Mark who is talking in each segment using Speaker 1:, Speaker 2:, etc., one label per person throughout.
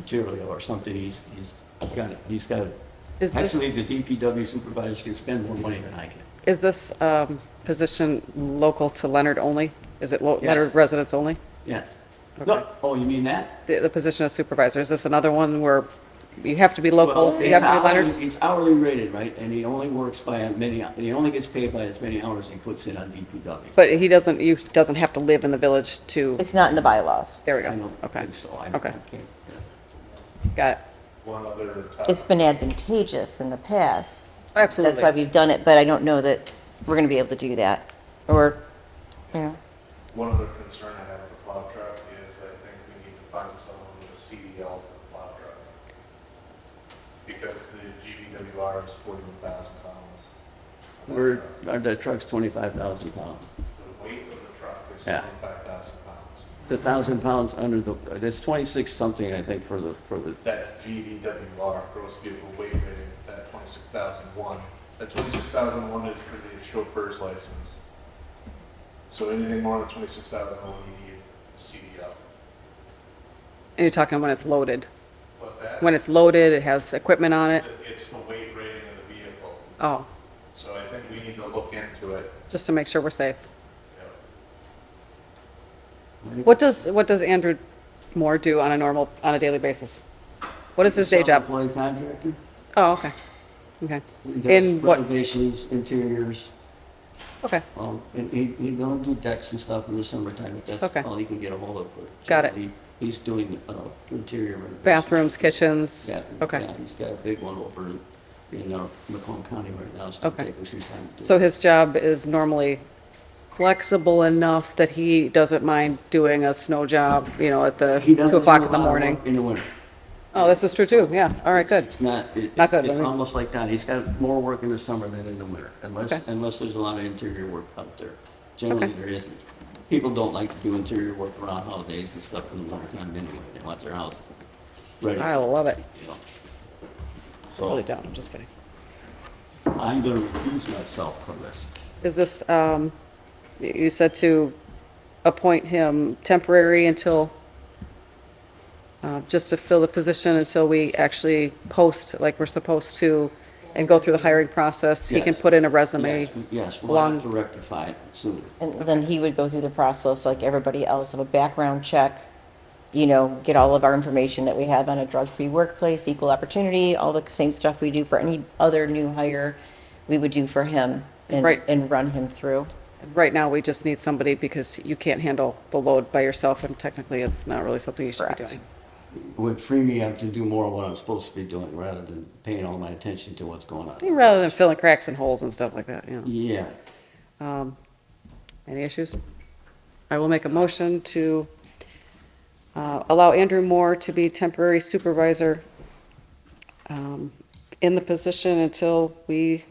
Speaker 1: material or something, he's, he's got it, he's got it.
Speaker 2: Is this-
Speaker 1: Actually, the DPW supervisors can spend more money than I can.
Speaker 2: Is this um, position local to Leonard only? Is it lo-
Speaker 1: Yeah.
Speaker 2: Leonard residents only?
Speaker 1: Yes. No, oh, you mean that?
Speaker 2: The the position of supervisor, is this another one where you have to be local,
Speaker 1: Well,
Speaker 2: Oh, you
Speaker 1: it's
Speaker 2: have to be
Speaker 1: hourly,
Speaker 2: Leonard?
Speaker 1: it's hourly rated, right? And he only works by as many, he only gets paid by as many hours he puts in on DPW.
Speaker 2: But he doesn't, you doesn't have to live in the village to,
Speaker 3: It's not in the bylaws.
Speaker 2: there we
Speaker 1: I
Speaker 2: go.
Speaker 1: don't
Speaker 2: Okay,
Speaker 1: think so. I- I
Speaker 2: Okay.
Speaker 1: can't- yeah.
Speaker 2: got it.
Speaker 4: One other
Speaker 3: It's
Speaker 4: topic,
Speaker 3: been advantageous in the past. That's why
Speaker 2: Absolutely.
Speaker 3: we've done it, but I don't know that we're going to be able to do that. Or, you know,
Speaker 4: one other concern I have with the plow truck is I think we need to find someone with a CDL for the plow truck. Because the GVWR is forty-one thousand pounds. on that
Speaker 1: We're,
Speaker 4: truck.
Speaker 1: our- the truck's 25,000 pounds.
Speaker 4: The weight of the truck is
Speaker 1: Yeah.
Speaker 4: twenty-five thousand pounds.
Speaker 1: It's 1,000 pounds under the, uh, it's 26 something, I think, for the, for the,
Speaker 4: That's GVWR, gross vehicle weight rating, that twenty-six thousand one. That twenty-six thousand one is for the chauffeur's license. So anything more than twenty-six thousand one, you need a CDL.
Speaker 2: And you're talking when it's loaded.
Speaker 4: What's that?
Speaker 2: When it's loaded, it has equipment on it.
Speaker 4: It's the weight rating of the vehicle,
Speaker 2: Oh,
Speaker 4: so I think we need to look into it.
Speaker 2: just to make sure we're safe.
Speaker 4: you know.
Speaker 2: What does, what does Andrew Moore do on a normal, on a daily basis? What is his day job?
Speaker 1: Self-employed contractor.
Speaker 2: Oh, okay. Okay,
Speaker 1: He does
Speaker 2: In what-
Speaker 1: Renovations, interiors,
Speaker 2: okay.
Speaker 1: um, and he, he don't do decks and stuff in the summertime, but
Speaker 2: Okay.
Speaker 1: that's all he can get a hold of. but
Speaker 2: Got it.
Speaker 1: he- He's doing, uh, interior renovations.
Speaker 2: Bathrooms, kitchens?
Speaker 1: Yeah,
Speaker 2: Okay.
Speaker 1: yeah, He's got a big one over in, in, uh, Macomb County right now, so
Speaker 2: Okay.
Speaker 1: it'll take us some time to do.
Speaker 2: So
Speaker 1: it.
Speaker 2: his job is normally flexible enough that he doesn't mind doing a snow job, you know, at the
Speaker 1: He
Speaker 2: 2
Speaker 1: doesn't
Speaker 2: o'clock
Speaker 1: do a
Speaker 2: in the
Speaker 1: lot of
Speaker 2: morning?
Speaker 1: work In the winter.
Speaker 2: Oh, this is true too, yeah, all right, good.
Speaker 1: It's not, it-
Speaker 2: Not good,
Speaker 1: it's
Speaker 2: but-
Speaker 1: almost like that. He's got more work in the summer than in the winter, unless,
Speaker 2: Okay.
Speaker 1: unless there's a lot of interior work out there. Generally,
Speaker 2: Okay.
Speaker 1: there isn't. People don't like to do interior work around holidays and stuff in the winter time anyway. They want their house ready,
Speaker 2: I love it,
Speaker 1: you know.
Speaker 2: really
Speaker 1: So
Speaker 2: don't, I'm just kidding.
Speaker 1: I'm gonna refuse myself from this.
Speaker 2: Is this, um, y- you said to appoint him temporary until, uh, just to fill the position until we actually post like we're supposed to and go through the hiring process? He can
Speaker 1: Yes.
Speaker 2: put in a resume?
Speaker 1: Yes, we- Yes, we'll have
Speaker 2: long-
Speaker 1: to rectify it soon.
Speaker 3: and then he would go through the process like everybody else of a background check, you know, get all of our information that we have on a drug-free workplace, equal opportunity, all the same stuff we do for any other new hire, we would do for him and,
Speaker 2: Right.
Speaker 3: and run him through.
Speaker 2: Right now, we just need somebody because you can't handle the load by yourself, and technically, it's not really something you should be
Speaker 3: Correct.
Speaker 2: doing.
Speaker 1: It Would free me up to do more of what I'm supposed to be doing, rather than paying all my attention to what's going on.
Speaker 2: Rather than filling cracks and holes and stuff like that, you know.
Speaker 1: Yeah,
Speaker 2: Um, Any issues? I will make a motion to uh, allow Andrew Moore to be temporary supervisor um, in the position until we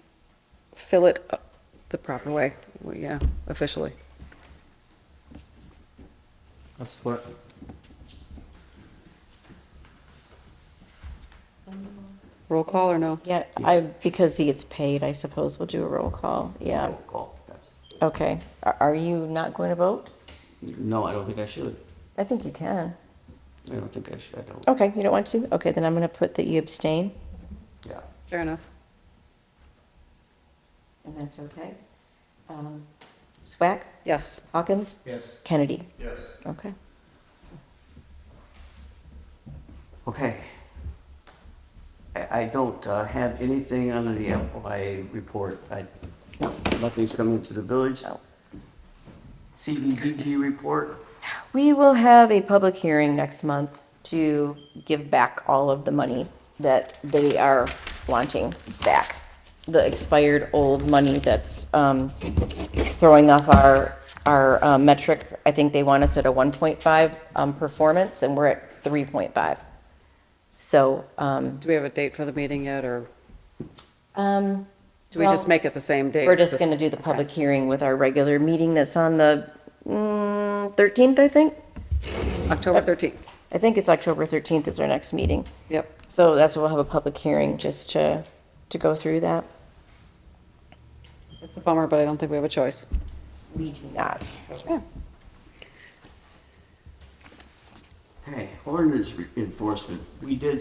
Speaker 2: fill it up the proper way, Well, yeah, officially.
Speaker 5: That's what,
Speaker 2: Roll call or no?
Speaker 3: Yeah, I, because he gets paid, I suppose we'll do a roll call, yeah.
Speaker 1: roll call.
Speaker 3: Okay, Are- are you not going to vote?
Speaker 1: No, I don't think I should.
Speaker 3: I think you can.
Speaker 1: I don't think I should, I don't,
Speaker 3: Okay, you don't want to? Okay, then I'm going to put that you abstain.
Speaker 1: yeah.
Speaker 2: Fair enough.
Speaker 3: And that's okay. Um, Swack,
Speaker 2: Yes.
Speaker 3: Hawkins,
Speaker 5: yes,
Speaker 3: Kennedy.
Speaker 4: Yes,
Speaker 3: Okay.
Speaker 1: Okay. I, I don't uh, have anything under the FYI report. I, nothing's come into the village.
Speaker 3: No.
Speaker 1: CDBG report,
Speaker 3: We will have a public hearing next month to give back all of the money that they are wanting back. The expired old money that's um, throwing off our, our uh, metric. I think they want us at a 1.5 um, performance and we're at 3.5. So, um,
Speaker 2: Do we have a date for the meeting yet, or
Speaker 3: um,
Speaker 2: do we just
Speaker 3: Well-
Speaker 2: make it the same date?
Speaker 3: We're just
Speaker 2: This-
Speaker 3: going to do the public hearing with our regular meeting that's on the mm, 13th, I think.
Speaker 2: October 13th.
Speaker 3: I think it's October 13th is our next meeting.
Speaker 2: Yep.
Speaker 3: So that's when we'll have a public hearing just to, to go through that.
Speaker 2: It's a bummer, but I don't think we have a choice.
Speaker 3: We do not.
Speaker 2: Yeah.
Speaker 1: Okay, ordinance enforcement. We did